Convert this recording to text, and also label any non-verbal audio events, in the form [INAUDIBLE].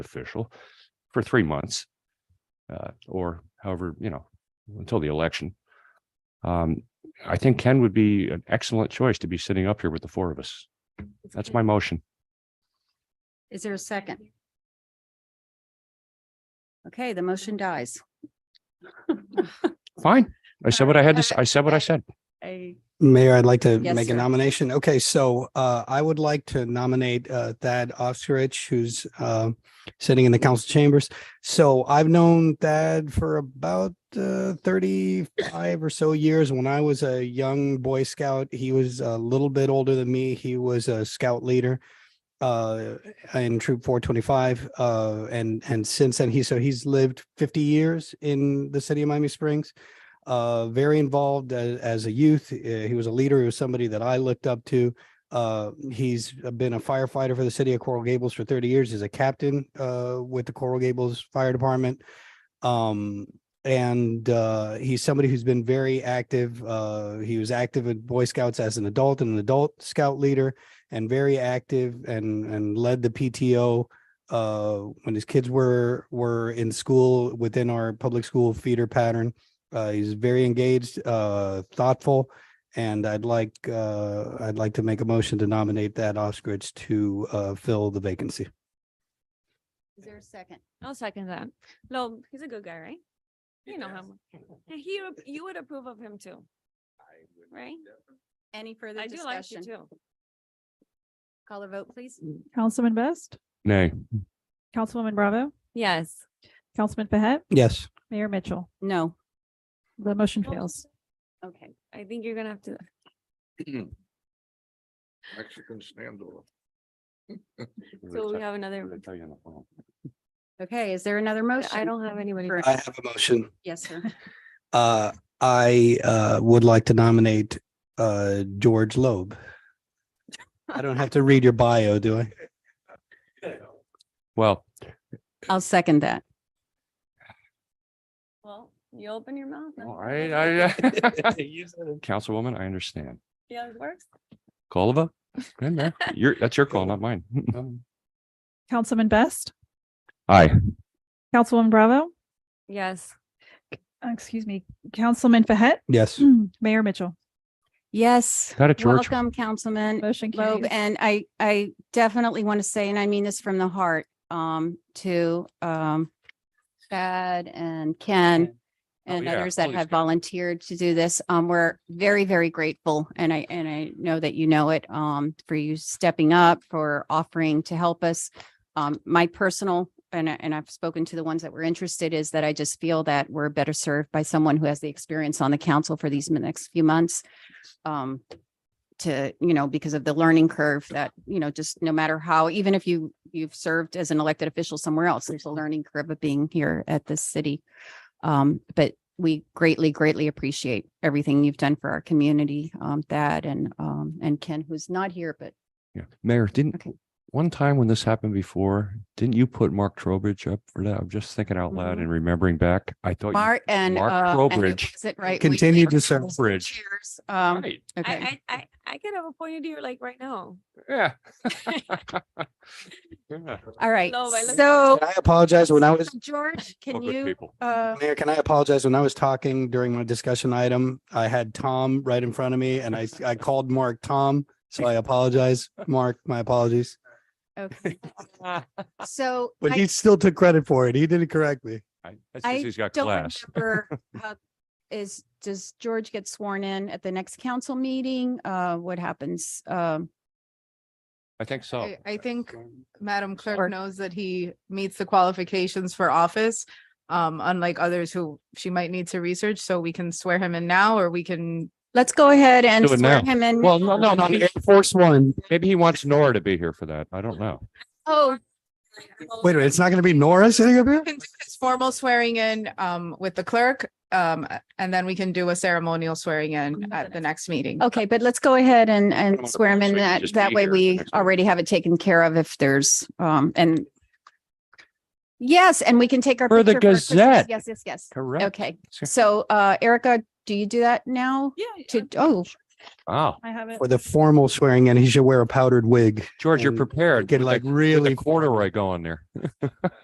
official for three months. Uh, or however, you know, until the election. Um, I think Ken would be an excellent choice to be sitting up here with the four of us. That's my motion. Is there a second? Okay, the motion dies. [LAUGHS] Fine. I said what I had to, s- I said what I said. I. Mayor, I'd like to Yes, make a sir. nomination. Okay, so uh, I would like to nominate uh, Thad Osterich, who's uh, sitting in the council chambers. So I've known Thad for about uh, 35 or so years. When I was a young Boy Scout, he was a little bit older than me. He was a scout leader uh, in Troop 425. uh, And, and since then, he, so he's lived 50 years in the city of Miami Springs uh, very involved as, as a youth. Uh, he was a leader. He was somebody that I looked up to. Uh, he's been a firefighter for the city of Coral Gables for 30 years. He's a captain uh, with the Coral Gables Fire Department. Um, and uh, he's somebody who's been very active. Uh, he was active in Boy Scouts as an adult and an adult scout leader, and very active and and led the PTO uh, when his kids were were in school within our public school feeder pattern. Uh, he's very engaged, uh, thoughtful, and I'd like, uh, I'd like to make a motion to nominate that Ostrich to, uh, fill the vacancy. Is there a second? I'll second that. No, he's a good guy, right? You know him. And He, ap- you would approve of him too, right? Any further I do like you discussion? too. Call a vote, please. Councilman Best, Nay, Councilwoman Bravo, Yes. Councilman Behet, Yes. Mayor Mitchell. No. The motion fails. Okay. I think you're gonna have to, Mexican [LAUGHS] standoff. so we have another, Okay, is there another motion? I don't have anybody. For- I have a motion. Yes, sir. Uh, I, uh, would like to nominate, uh, George Loeb. I don't have to read your bio, do I? Well, I'll second that. Well, you open your mouth. and- all right, I, [LAUGHS] Councilwoman, I uh, understand. Yeah, it works. Golova, [LAUGHS] in there. You're, that's your call, not [LAUGHS] mine. Councilman Best, Aye. Councilwoman Bravo, Yes. uh, excuse me, Councilman Behet, Yes. [CLEARS THROAT] Mayor Mitchell. Yes. Got it, George. Welcome, Councilman Motion Loeb. carries. And I, I definitely want to say, and I mean this from the heart, um, to, um, Chad and Ken Oh, and yeah, others that please, have Ken. volunteered to do this. Um, we're very, very grateful. And I, and I know that you know it, um, for you stepping up, for offering to help us. Um, my personal, and, I- and I've spoken to the ones that were interested is that I just feel that we're better served by someone who has the experience on the council for these next few months. Um, to you know because of the learning curve that you know just no matter how even if you you've served as an elected official somewhere else there's a learning curve of being here at this city um but we greatly greatly appreciate everything you've done for our community um that and um and ken who's not here but Yeah, Mayor, didn't, Okay. one time when this happened before, didn't you put Mark Trowbridge up for that? I'm just thinking out loud Mhm. and remembering back. I thought. Oh, you- [LAUGHS] mark and Mark uh and it Trowbridge. was it right Continue Wheatley? to serve. Trowbridge. cheers um Right, okay I, I, I, I could have appointed you like right now. yeah. [LAUGHS] Yeah. all right No, I looked- so I apologize when I was, george can Corporate you [LAUGHS] people. [LAUGHS] uh Mayor, can I apologize? When I was talking during my discussion item, I had Tom right in front of me and I, I called Mark Tom. So I apologize, Mark, my apologies. [LAUGHS] okay so But I- he still took credit for it. He did it correctly. I- That's I because he's got [LAUGHS] don't class. remember how is does George get sworn in at the next council meeting? Uh, what happens? Um, I think so. I- I think Madam Sure. Clerk knows that he meets the qualifications for office. Um, unlike others who she might need to research, so we can swear him in now, or we can, let's go ahead and Do it swear now. him in. Well, no, no, no. Air Force One. Maybe he wants Nora to be here for that. I don't know. Oh, Wait a minute, it's not gonna be Nora sitting up here? we can do his formal swearing in, um, with the clerk. Um, and then we can do a ceremonial swearing in at the next meeting. okay, but let's go ahead and, Come and on, swear him so in you can that, just that be way here for the we next meeting. already have it taken care of if there's, um, and yes, and we can take our. For the picture Christmas. Gazette. Yes, yes, yes. Correct. Okay. Sure. So, uh, Erica, do you do that now? Yeah. To, oh, Wow, I have it. for the formal swearing in, he should wear a powdered wig. George, you're And prepared. get, with like, the- with the really formal. Corduroy going there.